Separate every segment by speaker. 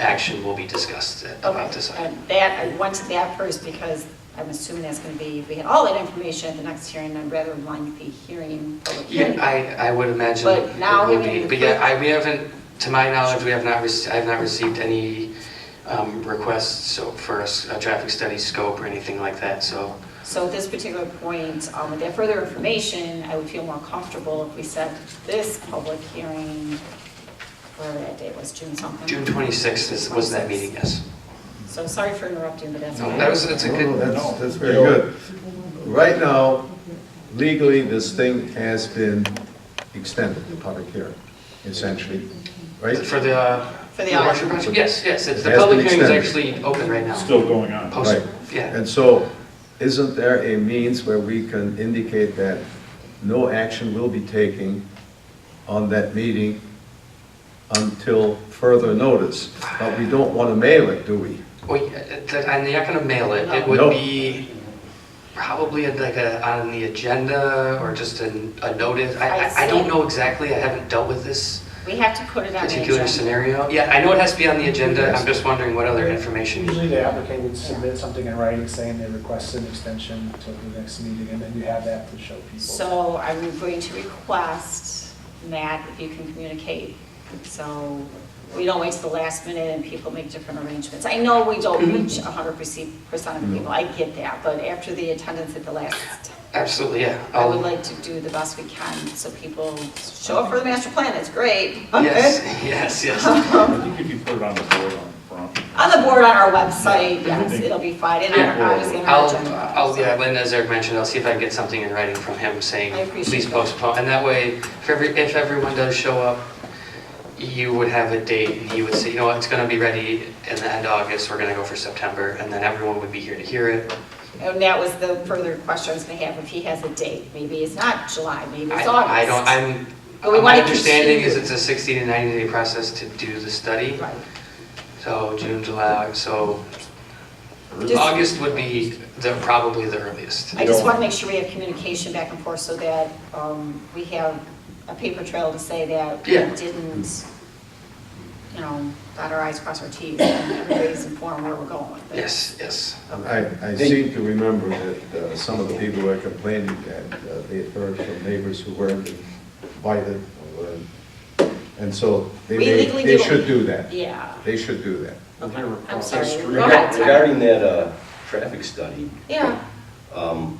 Speaker 1: action will be discussed about this
Speaker 2: Okay,
Speaker 1: item.
Speaker 2: and That, I wanted that first because I'm assuming that's going to be, we had all that information at the next hearing, I'd rather like the hearing, public hearing.
Speaker 1: Yeah, I, I would imagine.
Speaker 2: But
Speaker 1: it
Speaker 2: now
Speaker 1: would
Speaker 2: we
Speaker 1: be.
Speaker 2: need
Speaker 1: But
Speaker 2: to-
Speaker 1: yeah, I, we haven't, to my knowledge, we have not, rece- I have not received any um, requests so for a s- a traffic study scope or anything like that, so.
Speaker 2: So at this particular point, um, with that further information, I would feel more comfortable if we set this public hearing, whatever that date was, June something.
Speaker 1: June 26th is- was that meeting, yes.
Speaker 2: So sorry for interrupting, but that's.
Speaker 1: No,
Speaker 2: what I-
Speaker 1: That was, that's a
Speaker 3: No,
Speaker 1: good,
Speaker 3: Oh, That's, that's very good. Right now, legally, this thing has been extended, the public hearing, essentially, right?
Speaker 1: for the. uh,
Speaker 2: For the
Speaker 1: abortion
Speaker 2: audit.
Speaker 1: project? Yes, yes, it's,
Speaker 3: It
Speaker 1: the
Speaker 3: has been
Speaker 1: public hearing is
Speaker 3: extended.
Speaker 1: actually open right now.
Speaker 4: still going on.
Speaker 1: Post-
Speaker 3: Right.
Speaker 1: Yeah,
Speaker 3: And so, isn't there a means where we can indicate that no action will be taken on that meeting until further notice? But we don't want to mail it, do we?
Speaker 1: well, yeah, it- that- uh, and you're not gonna mail it, it
Speaker 3: No.
Speaker 1: would be probably like a, on the agenda or just an- a notice. I,
Speaker 2: I
Speaker 1: I- I don't
Speaker 2: see.
Speaker 1: know exactly, I haven't dealt with this
Speaker 2: We have to put it on the
Speaker 1: particular
Speaker 2: agenda.
Speaker 1: scenario. Yeah, I know it has to be on the agenda, I'm just wondering what other information.
Speaker 5: Usually the applicant would submit something in writing saying they request an extension till the next meeting, and then you have that to show people.
Speaker 2: So I'm going to request, Matt, if you can communicate, so we don't wait till the last minute and people make different arrangements. I know we don't reach hundred percent of people, I get that, but after the attendance at the last,
Speaker 1: Absolutely, yeah.
Speaker 2: I would
Speaker 1: I'll-
Speaker 2: like to do the best we can, so people show up for the master plan, it's great.
Speaker 1: Yes, yes, yes.
Speaker 4: I think if you put it on the board on front.
Speaker 2: On the board on our website, yes, it'll be fine, and on our- obviously on our
Speaker 1: I'll,
Speaker 2: agenda.
Speaker 1: I'll, yeah, Lynn, as Eric mentioned, I'll see if I can get something in writing from him
Speaker 2: I
Speaker 1: saying,
Speaker 2: appreciate
Speaker 1: please
Speaker 2: that.
Speaker 1: postpone. And that way, if every, if everyone does show up, you would have a date, and you would say, you know what, it's gonna be ready in the end of August, we're gonna go for September, and then everyone would be here to hear it.
Speaker 2: And that was the further question I was gonna have, if he has a date, maybe it's not July, maybe
Speaker 1: I
Speaker 2: it's August.
Speaker 1: I don't, I'm,
Speaker 2: But we
Speaker 1: my
Speaker 2: wanna
Speaker 1: understanding is
Speaker 2: continue.
Speaker 1: it's a 60 to 90 day process to do the study.
Speaker 2: Right.
Speaker 1: So June, July, so
Speaker 2: Just-
Speaker 1: August would be the, probably the earliest.
Speaker 2: I just want to make sure we have communication back and forth so that um, we have a paper trail to say that we
Speaker 1: Yeah.
Speaker 2: didn't, you know, dot our i's, cross our t's, and everybody's informed where we're going with this.
Speaker 1: Yes, yes.
Speaker 3: I, I seem to remember that uh, some of the people were complaining that uh, they had heard from neighbors who weren't invited, or weren't- and so they
Speaker 2: We
Speaker 3: may,
Speaker 2: legally
Speaker 3: they
Speaker 2: do-
Speaker 3: should do that.
Speaker 2: Yeah.
Speaker 3: They should do that.
Speaker 2: Okay. I'm sorry.
Speaker 6: Yes,
Speaker 2: Go ahead,
Speaker 6: Regarding
Speaker 2: Tom.
Speaker 6: regarding that uh, traffic study,
Speaker 2: Yeah,
Speaker 6: um,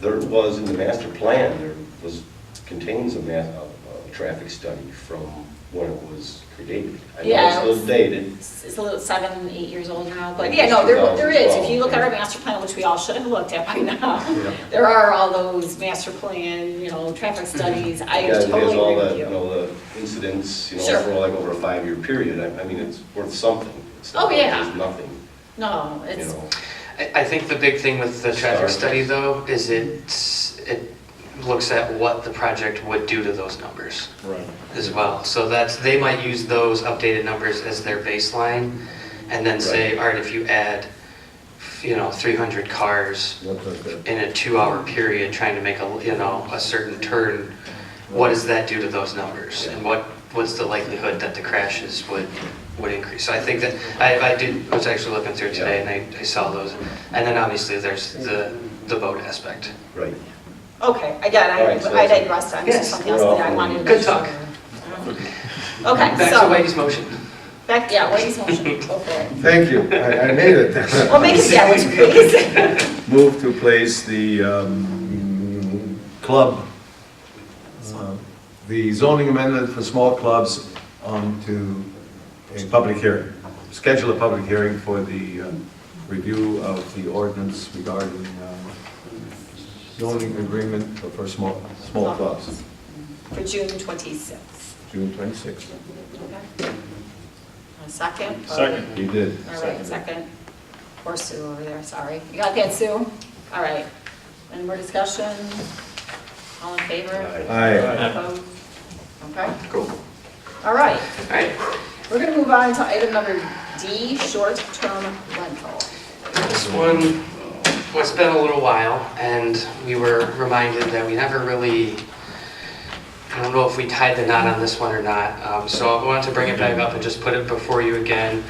Speaker 6: there was in the master plan, there was, contains a ma, a a traffic study from when it was created. I
Speaker 2: Yeah,
Speaker 6: know it's a
Speaker 2: it's-
Speaker 6: little dated,
Speaker 2: it's it's a little, seven, eight years old now, but yeah, no, there, there is. If you look at our master plan, which we all should have looked at by now, there are all those master plan, you know, traffic studies. I
Speaker 6: Mm-hmm. Yeah, it has
Speaker 2: totally
Speaker 6: all
Speaker 2: agree
Speaker 6: that,
Speaker 2: with
Speaker 6: you
Speaker 2: you.
Speaker 6: know, the incidents, you
Speaker 2: Sure.
Speaker 6: know, for like over a five-year period, I, I mean, it's worth something. It's
Speaker 2: Oh,
Speaker 6: not like
Speaker 2: yeah.
Speaker 6: There's nothing,
Speaker 2: No,
Speaker 6: you
Speaker 2: it's,
Speaker 6: know.
Speaker 1: I, I think the big thing with the traffic
Speaker 6: Sorry.
Speaker 1: study though is it, it looks at what the project would do to those numbers
Speaker 4: Right.
Speaker 1: as well. So that's, they might use those updated numbers as their baseline and then say,
Speaker 6: Right.
Speaker 1: all right, if you add, you know, 300 cars
Speaker 3: What does that-
Speaker 1: in a two-hour period trying to make a, you know, a certain turn, what does that do to those numbers? And what, what's the likelihood that the crashes would, would increase? So I think that, I, I did, was actually looking through today and I, I saw those. And then obviously there's the, the boat aspect.
Speaker 6: Right.
Speaker 2: okay, again,
Speaker 6: All right, so
Speaker 2: I I
Speaker 6: that's-
Speaker 2: digress. I'm
Speaker 1: Yes,
Speaker 2: something else
Speaker 6: we're
Speaker 2: that I
Speaker 6: all-
Speaker 2: wanted to.
Speaker 1: Good
Speaker 2: make sure.
Speaker 1: talk.
Speaker 2: Okay,
Speaker 1: Back to
Speaker 2: so,
Speaker 1: Whitey's motion.
Speaker 2: back, yeah, Whitey's motion, go for it.
Speaker 3: Thank you, I, I made it.
Speaker 2: Well, make it that way, please.
Speaker 3: Move to place the um, club, uh, the zoning amendment for small clubs onto a public hearing. Schedule a public hearing for the um, review of the ordinance regarding um, zoning agreement for- for small, small clubs,
Speaker 2: For June 26th.
Speaker 3: June 26th.
Speaker 2: Okay. A second?
Speaker 4: Second.
Speaker 3: You did.
Speaker 2: All right, second. Poor Sue over there, sorry. You got that, Sue? All right. Any more discussion? All in favor?
Speaker 3: Aye.
Speaker 2: Opposed? Okay,
Speaker 1: Cool.
Speaker 2: all right.
Speaker 1: All right.
Speaker 2: We're going to move on to item number D, short-term rental.
Speaker 1: This one, well, it's been a little while, and we were reminded that we never really I don't know if we tied the knot on this one or not, um, so I want to bring it back up and just put it before you again.